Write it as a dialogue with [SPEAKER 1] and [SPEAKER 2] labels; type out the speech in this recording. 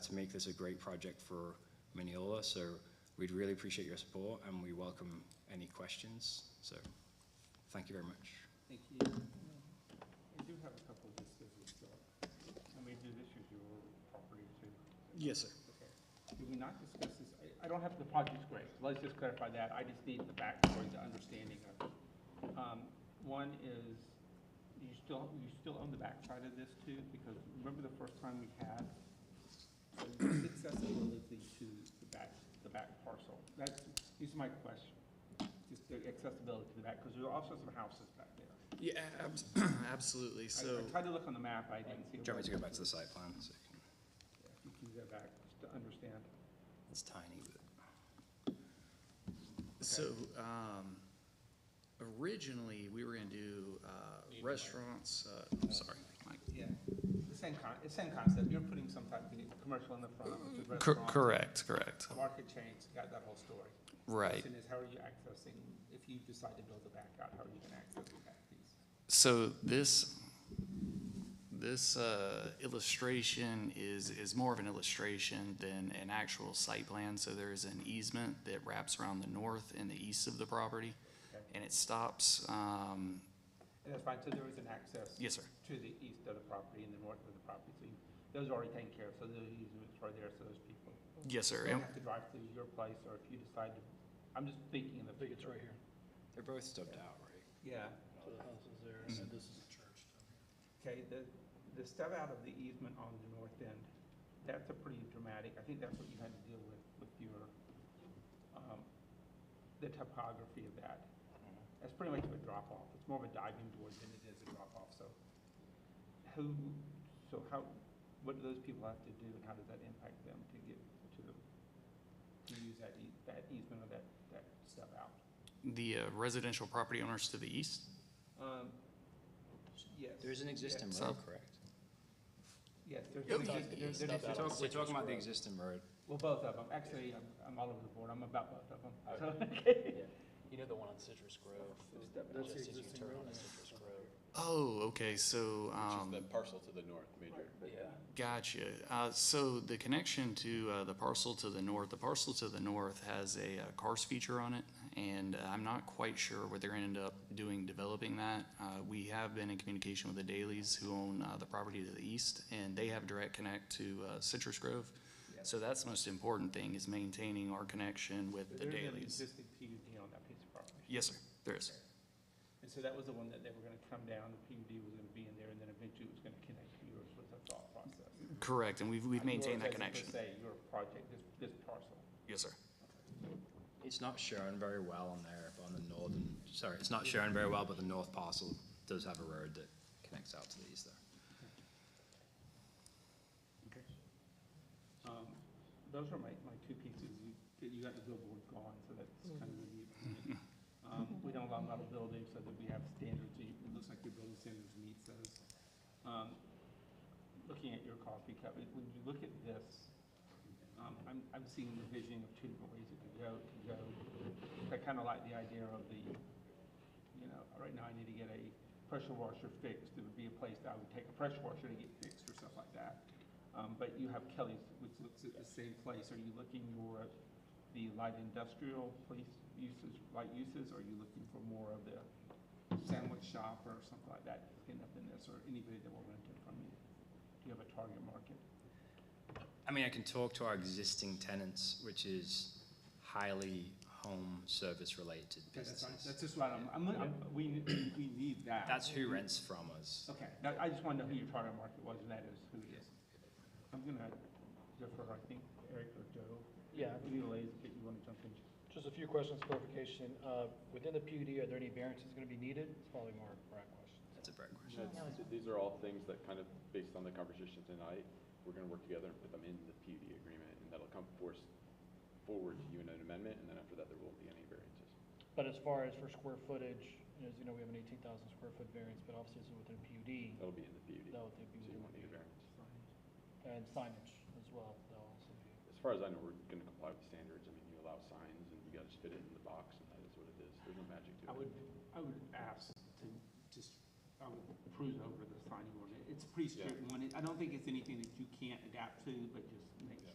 [SPEAKER 1] us make this a great project for Mineola. So we'd really appreciate your support and we welcome any questions. So thank you very much.
[SPEAKER 2] Thank you.
[SPEAKER 3] We do have a couple of issues, so, I mean, these issues your property too.
[SPEAKER 4] Yes, sir.
[SPEAKER 3] Okay. Did we not discuss this? I, I don't have the project grade, let's just clarify that, I just need the backstory, the understanding of it. Um, one is, you still, you still own the backside of this too, because remember the first time we had? So it's accessible to the back, the back parcel, that's, is my question, just the accessibility to the back, because there are also some houses back there.
[SPEAKER 4] Yeah, abs- absolutely.
[SPEAKER 3] I-
[SPEAKER 4] So,
[SPEAKER 3] I tried to look on the map, I didn't see.
[SPEAKER 1] Do you
[SPEAKER 3] it.
[SPEAKER 1] want me to go back to the site plan? So you can-
[SPEAKER 3] If You can go back, just to understand.
[SPEAKER 1] It's tiny, but.
[SPEAKER 4] so, um, originally, we were gonna do, uh, restaurants, uh, I'm sorry. Mike.
[SPEAKER 3] Yeah, the same con, the same concept, you're putting some type of commercial in the front, which is
[SPEAKER 5] Cor-
[SPEAKER 3] restaurant.
[SPEAKER 5] Correct, correct,
[SPEAKER 3] Market chains, got that whole story.
[SPEAKER 5] right.
[SPEAKER 3] Question is, how are you accessing, if you decide to build the back out, how are you gonna access the back piece?
[SPEAKER 5] So this, this uh, illustration is, is more of an illustration than an actual site plan. So there is an easement that wraps around the north and the east of the property,
[SPEAKER 3] Okay.
[SPEAKER 5] and it stops, um,
[SPEAKER 3] And that's fine, so there is an access
[SPEAKER 5] yes, sir,
[SPEAKER 3] to the east of the property and the north of the property, so you, those are already taken care of, so those easements are there, so those people.
[SPEAKER 5] yes, sir.
[SPEAKER 3] Don't
[SPEAKER 5] And-
[SPEAKER 3] have to drive through your place, or if you decide to, I'm just thinking in the.
[SPEAKER 6] I think it's right here.
[SPEAKER 1] They're both stubbed out, right?
[SPEAKER 3] Yeah.
[SPEAKER 6] So the house is there, and this is the church.
[SPEAKER 3] Okay, the, the stub out of the easement on the north end, that's a pretty dramatic, I think that's what you had to deal with, with your, um, the topography of that. That's pretty much a drop off, it's more of a diving board than it is a drop off, so. Who, so how, what do those people have to do and how does that impact them to get to the, to use that ea- that easement or that, that stub out?
[SPEAKER 5] The uh, residential property owners to the east,
[SPEAKER 3] Um, yes.
[SPEAKER 1] There is an existing
[SPEAKER 5] Yeah.
[SPEAKER 1] road,
[SPEAKER 5] So-
[SPEAKER 1] correct?
[SPEAKER 3] Yes, there's,
[SPEAKER 5] Yep.
[SPEAKER 3] there's, there's.
[SPEAKER 6] Stub
[SPEAKER 3] there's-
[SPEAKER 6] out.
[SPEAKER 1] Talk- We're talking about the existing road.
[SPEAKER 3] Well, both of them, actually, I'm, I'm all over the board, I'm about both of them, so,
[SPEAKER 6] You know the one on Citrus Grove?
[SPEAKER 3] That's
[SPEAKER 6] Just as you turn on to Citrus Grove.
[SPEAKER 5] oh, okay, so. um,
[SPEAKER 7] Which is the parcel to the north, major.
[SPEAKER 6] Yeah.
[SPEAKER 5] Gotcha. Uh, so the connection to uh, the parcel to the north, the parcel to the north has a uh, cars feature on it, and uh, I'm not quite sure what they're going to end up doing developing that. Uh, we have been in communication with the Dailies who own uh, the property to the east, and they have direct connect to uh, Citrus Grove.
[SPEAKER 3] Yes.
[SPEAKER 5] So that's the most important thing is maintaining our connection with
[SPEAKER 3] but
[SPEAKER 5] the
[SPEAKER 3] there's an
[SPEAKER 5] Dailies.
[SPEAKER 3] existing PUD on that piece of property.
[SPEAKER 5] Yes, sir. There is.
[SPEAKER 3] And so that was the one that they were gonna come down, the PUD was gonna be in there, and then eventually it was gonna connect to yours with the thought process.
[SPEAKER 5] Correct, and we've, we've
[SPEAKER 3] Not yours
[SPEAKER 5] maintained that
[SPEAKER 3] as in per
[SPEAKER 5] connection.
[SPEAKER 3] se, your project, this, this parcel.
[SPEAKER 5] Yes, sir.
[SPEAKER 1] It's not shown very well on there, but on the northern, sorry, it's not shown very well, but the north parcel does have a road that connects out to the east there.
[SPEAKER 3] Okay. Um, those are my, my two pieces, you, that you got the billboard gone, so that's kind of the, um, we don't allow metal buildings, so that we have standards, and it looks like your building standards meets those. Um, looking at your coffee cup, it- when you look at this, um, I'm, I'm seeing the vision of two different ways it could go, it could go. I kinda like the idea of the, you know, right now I need to get a pressure washer fixed, it would be a place that I would take a pressure washer to get fixed or stuff like that. Um, but you have Kelly's, which looks at the same place, are you looking more at the light industrial place uses, light uses, or are you looking for more of the sandwich shop or something like that, end up in this, or anybody that will rent it from you? Do you have a target market?
[SPEAKER 1] I mean, I can talk to our existing tenants, which is highly home service related
[SPEAKER 3] That's, fine.
[SPEAKER 1] businesses.
[SPEAKER 3] that's just what I'm, I'm, I'm, we, we need that.
[SPEAKER 1] That's who rents from us.
[SPEAKER 3] Okay, now, I just wanted to know who your target market was, and that is who it is. I'm gonna defer, I think, Eric or Joe,
[SPEAKER 6] Yeah,
[SPEAKER 3] if you ladies, if you wanna jump in.
[SPEAKER 6] just a few questions, clarification. Uh, within the PUD, are there any variances gonna be needed? It's probably more Brad question.
[SPEAKER 1] That's a Brett question.
[SPEAKER 7] That's- These are all things that kind of, based on the conversation tonight, we're gonna work together and put them in the PUD agreement, and that'll come force forward to you in an amendment, and then after that, there won't be any variances.
[SPEAKER 6] But as far as for square footage, as you know, we have an eighteen thousand square foot variance, but obviously it's within PUD,
[SPEAKER 7] That'll be in the PUD,
[SPEAKER 6] that would be
[SPEAKER 7] Oh. so you
[SPEAKER 6] within
[SPEAKER 7] won't need a
[SPEAKER 6] PUD.
[SPEAKER 7] variance.
[SPEAKER 6] And signage as well, that'll also be.
[SPEAKER 7] As far as I know, we're gonna comply with standards, I mean, you allow signs, and you gotta just fit it in the box, and that is what it is, there's no magic to it.
[SPEAKER 3] I would, I would ask to just, I would cruise over the signing ordinance. It's a pretty strict one. I don't think it's anything that you can't adapt to, but just